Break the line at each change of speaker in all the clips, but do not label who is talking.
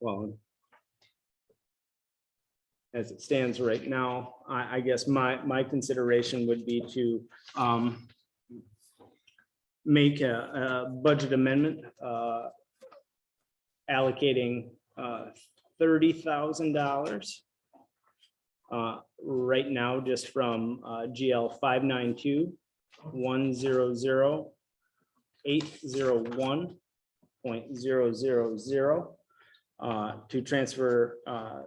Well. As it stands right now, I, I guess my, my consideration would be to, um. Make a, a budget amendment, uh. Allocating, uh, thirty thousand dollars. Uh, right now, just from, uh, GL five nine two, one zero zero, eight zero one, point zero zero zero uh, to transfer, uh,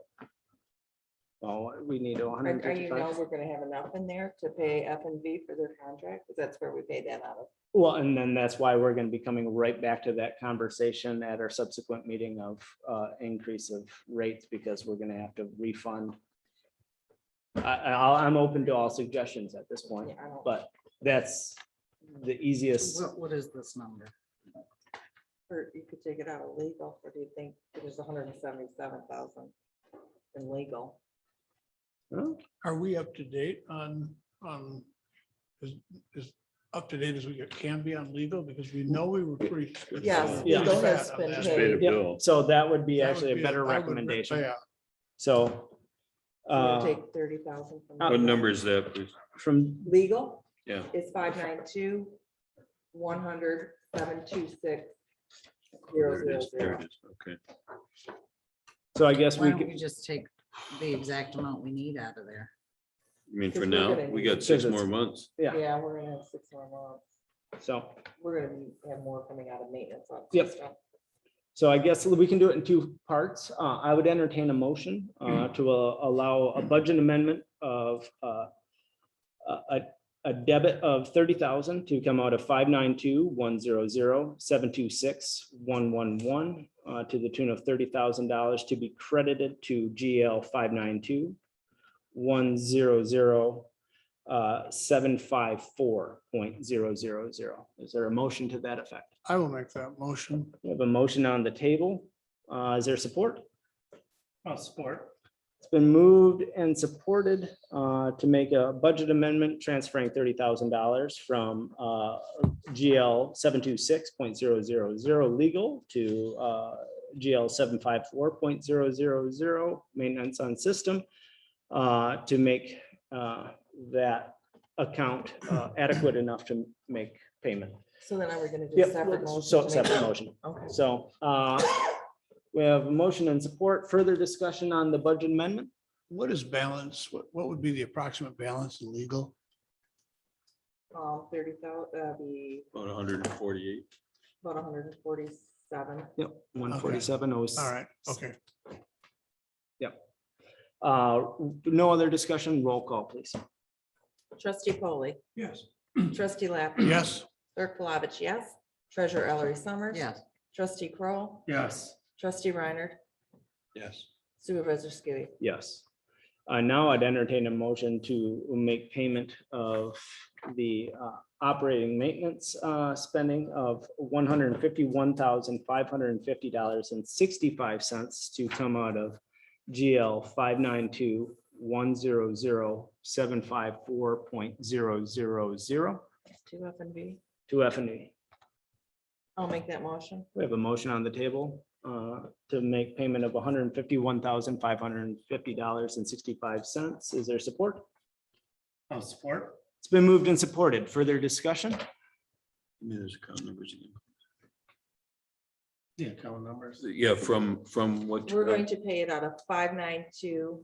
well, we need a
Are
hundred and
are you know
fifty-five.
we're gonna have enough in there to pay F and V for their contract? Because that's where we pay that out of.
Well, and then that's why we're gonna be coming right back to that conversation at our subsequent meeting of, uh, increase of rates because we're gonna have to refund. I, I, I'm open to all suggestions at this point,
Yeah, I don't-
but that's the easiest.
What, what is this number?
Or you could take it out of legal, or do you think it is hundred and seventy-seven thousand in legal?
Huh?
Are we up to date on, on, is, is up to date as we can be on legal? Because we know we were pretty.
Yes,
Yeah.
legal has been
That
paid.
would
Paid a
Yep.
bill.
So that would be actually
be-
a better
I would re-
recommendation,
yeah,
so.
We'll
Uh,
Take thirty thousand from.
Uh,
What
legal.
number is that? please?
from,
Legal
Yeah.
is five nine two, one hundred, seven two six, zero
There it
zero
is, there
zero.
it is, Okay.
so I guess
Why
we
don't
could.
we just take the exact amount we need out of there?
I mean, for
Because we're
now,
gonna
we
need-
got six
Because it's-
more months.
Yeah.
Yeah, we're gonna have six more months.
So,
We're gonna have more coming out of maintenance. on
Yep.
stuff.
so I guess we can do it in two parts. Uh, I would entertain a motion, uh, to uh, allow a budget amendment of, uh, a, a- a debit of thirty thousand to come out of five nine two one zero zero seven two six one one one, uh, to the tune of thirty thousand dollars to be credited to GL five nine two one zero zero, uh, seven five four point zero zero zero. Is there a motion to that effect?
I will make that motion.
We have a motion on the table. Uh, Is there support?
I'll support.
It's been moved and supported uh, to make a budget amendment transferring thirty thousand dollars from uh, GL seven two six point zero zero zero legal to uh, GL seven five four point zero zero zero maintenance on system uh, to make uh, that account uh, adequate enough to make payment.
So then are we gonna do
Yep,
a separate motion?
so
to make
separate
that?
motion.
Okay.
So uh, we have a motion and support, further discussion on the budget amendment.
What is balance? What, what would be the approximate balance in legal?
Um, thirty thou, uh, be
About hundred and forty-eight.
about hundred and forty-seven.
Yep, one forty-seven oh.
All right, okay.
Uh, No other discussion, roll call, please.
Trustee Polly,
Yes.
trustee Lappin.
Yes,
Clerk Plavich, yes. Treasurer Ellery Summers.
Yes,
Trustee Kroll,
Yes,
trustee Reiner,
Yes.
supervisor Skibby.
Yes. Uh, Now I'd entertain a motion to make payment of the uh, operating maintenance uh, spending of one hundred and fifty-one thousand, five hundred and fifty dollars and sixty-five cents to come out of GL five nine two one zero zero seven five four point zero zero zero
Two F and V.
to F and E.
I'll make that motion.
We have a motion on the table uh, to make payment of one hundred and fifty-one thousand, five hundred and fifty dollars and sixty-five cents. Is there support?
I'll Oh, support.
It's been moved and supported. Further discussion?
Give me those account numbers again.
The account numbers.
Yeah, from, from what?
We're going to pay it out of five nine two,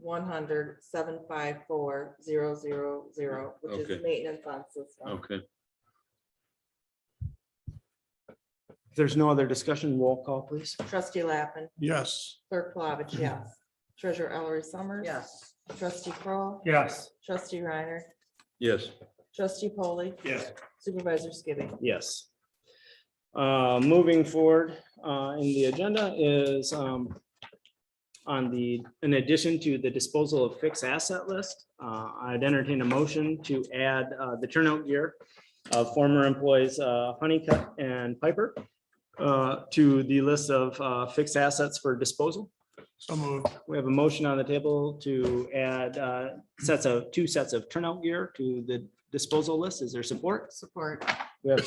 one hundred, seven five four, zero zero zero, which
Okay.
is maintenance on system.
Okay,
If there's no other discussion, roll call, please.
Trustee Lappin,
yes.
clerk Plavich, yes. Treasurer Ellery Summers.
yes.
Trustee Kroll,
Yes.
trustee Reiner,
yes.
trustee Polly,
Yes.
supervisor Skibby.
Yes. Uh, Moving forward uh, in the agenda is um, on the, in addition to the disposal of fixed asset list, uh, I'd entertain a motion to add uh, the turnout gear of former employees uh, Honeycutt and Piper uh, to the list of uh, fixed assets for disposal.
So moved.
We have a motion on the table to add uh, sets of, two sets of turnout gear to the disposal list. Is there support?
Support.
We have